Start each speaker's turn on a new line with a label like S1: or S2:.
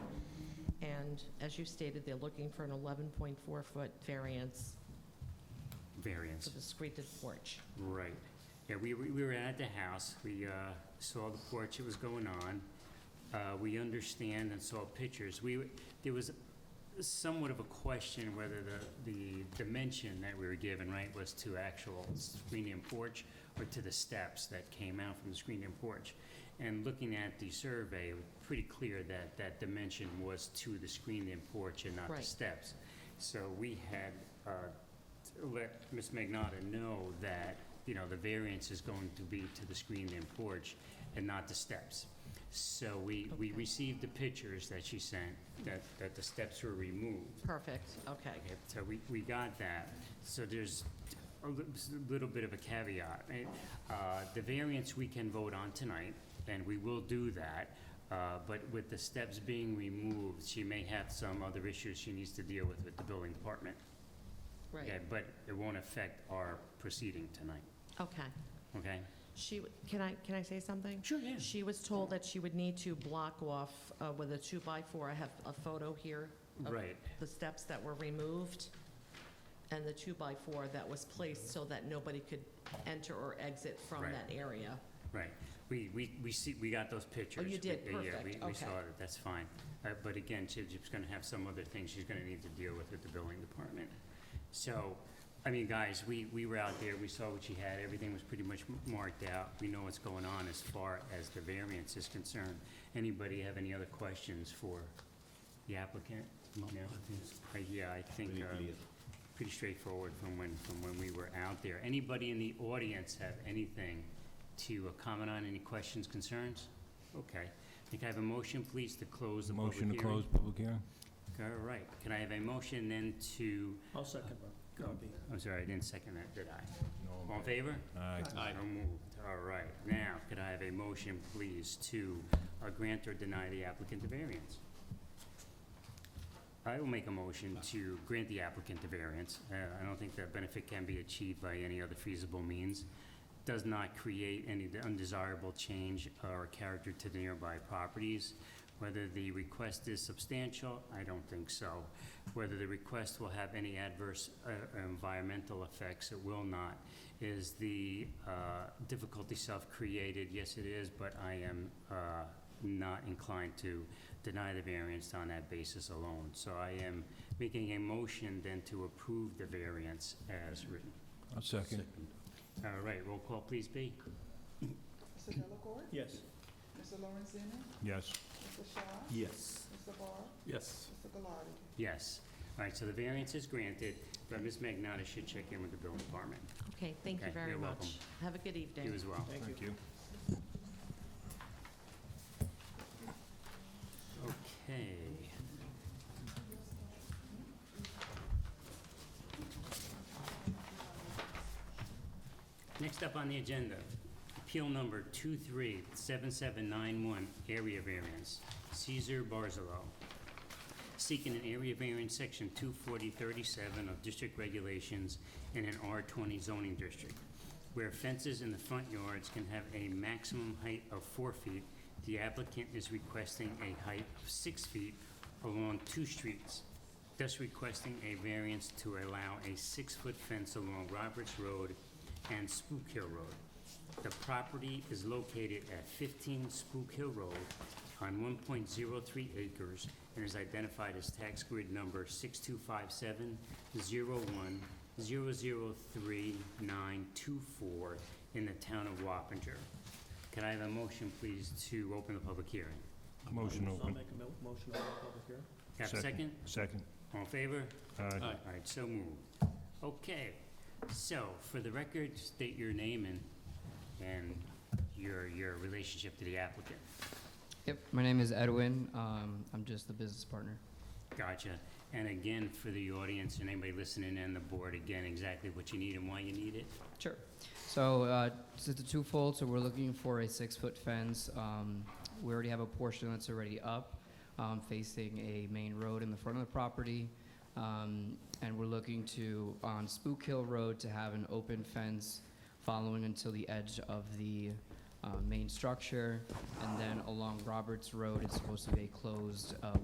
S1: And as you stated, they're looking for an 11.4-foot variance
S2: variance.
S1: for the screened porch.
S2: Right. Yeah, we, we we were at the house, we uh, saw the porch, it was going on. Uh, We understand and saw pictures. We, were- there was somewhat of a question whether the, the dimension that we were given, right, was to actual screened-in porch or to the steps that came out from the screened-in porch. And looking at the survey, it was pretty clear that that dimension was to the screened-in porch and not the
S1: Right.
S2: steps. So we had uh, let Ms. Magnata know that, you know, the variance is going to be to the screened-in porch and not the steps. So we, we
S1: Okay.
S2: received the pictures that she sent, that, that the steps were removed.
S1: Perfect, okay.
S2: Okay, So we, we got that. So there's a li- s- little bit of a caveat. right? Uh, The variance we can vote on tonight, and we will do that. uh, But with the steps being removed, she may have some other issues she needs to deal with with the building department. Okay,
S1: Right,
S2: but it won't affect our proceeding tonight,
S1: okay.
S2: okay?
S1: She, w- can I, can I say something?
S2: Sure, yeah.
S1: She was told that she would need to block off uh, with a two-by-four. I have a photo here of
S2: Right,
S1: the steps that were removed and the two-by-four that was placed so that nobody could enter or exit from
S2: Right.
S1: that area.
S2: right. We, we, we see, we got those pictures.
S1: Oh, you did,
S2: We- uh,
S1: perfect,
S2: Yeah, we, we
S1: okay.
S2: saw it, that's fine. Uh, But again, she- she's gonna have some other things she's gonna need to deal with with the building department. So, I mean, guys, we, we were out there, we saw what she had, everything was pretty much m- marked out. We know what's going on as far as the variance is concerned. Anybody have any other questions for the applicant? No? Uh, Yeah, I think, uh, pretty straightforward from when, from when we were out there. Anybody in the audience have anything to uh, comment on, any questions, concerns? Okay. Can I have a motion, please, to close the public
S3: Motion
S2: hearing?
S3: to close public hearing?
S2: All right. Can I have a motion then to,
S4: I'll second that.
S2: I'm sorry, I didn't second that, did I? All in favor?
S3: Aye.
S2: So moved. All right. Now, could I have a motion, please, to uh, grant or deny the applicant the variance? I will make a motion to grant the applicant the variance. Uh, I don't think that benefit can be achieved by any other feasible means. Does not create any undesirable change or character to the nearby properties. Whether the request is substantial, I don't think so. Whether the request will have any adverse uh, environmental effects, it will not. Is the uh, difficulty self-created? Yes, it is, but I am uh, not inclined to deny the variance on that basis alone. So I am making a motion then to approve the variance as written.
S3: I'll second.
S2: All right, roll call, please, B.
S5: Mr. Delacorte?
S4: Yes.
S5: Mr. Lorenzini?
S3: Yes.
S5: Mr. Shaw?
S4: Yes.
S5: Mr. Barr?
S4: Yes.
S5: Mr. Gallardi?
S2: Yes. All right, so the variance is granted, but Ms. Magnata should check in with the building department.
S1: Okay, thank you
S2: Okay,
S1: very
S2: you're welcome.
S1: much. Have a good evening.
S2: You as well.
S3: Thank you.
S2: Okay. Next up on the agenda, appeal number 237791, area variance, Caesar Barzalo. Seeking an area variance, section 24037 of district regulations in an R20 zoning district, where fences in the front yards can have a maximum height of four feet. The applicant is requesting a height of six feet along two streets, thus requesting a variance to allow a six-foot fence along Roberts Road and Spook Hill Road. The property is located at 15 Spook Hill Road on 1.03 acres and is identified as tax grid number 6257-01-003924 in the town of Wappinger. Can I have a motion, please, to open the public hearing?
S3: Motion
S4: I'll
S3: open.
S4: make a mo- motion to open public hearing.
S2: Have a second?
S3: Second.
S2: All in favor?
S3: Aye.
S2: All right, so moved. Okay, so for the record, state your name and, and your, your relationship to the applicant.
S6: Yep, my name is Edwin. Um, I'm just the business partner.
S2: Gotcha. And again, for the audience and anybody listening and the board, again, exactly what you need and why you need it.
S6: Sure. So uh, it's a twofold. So we're looking for a six-foot fence. Um, we already have a portion that's already up, um, facing a main road in the front of the property, um, and we're looking to on Spook Hill Road to have an open fence following until the edge of the uh, main structure, and then along Roberts Road it's supposed to be a closed uh,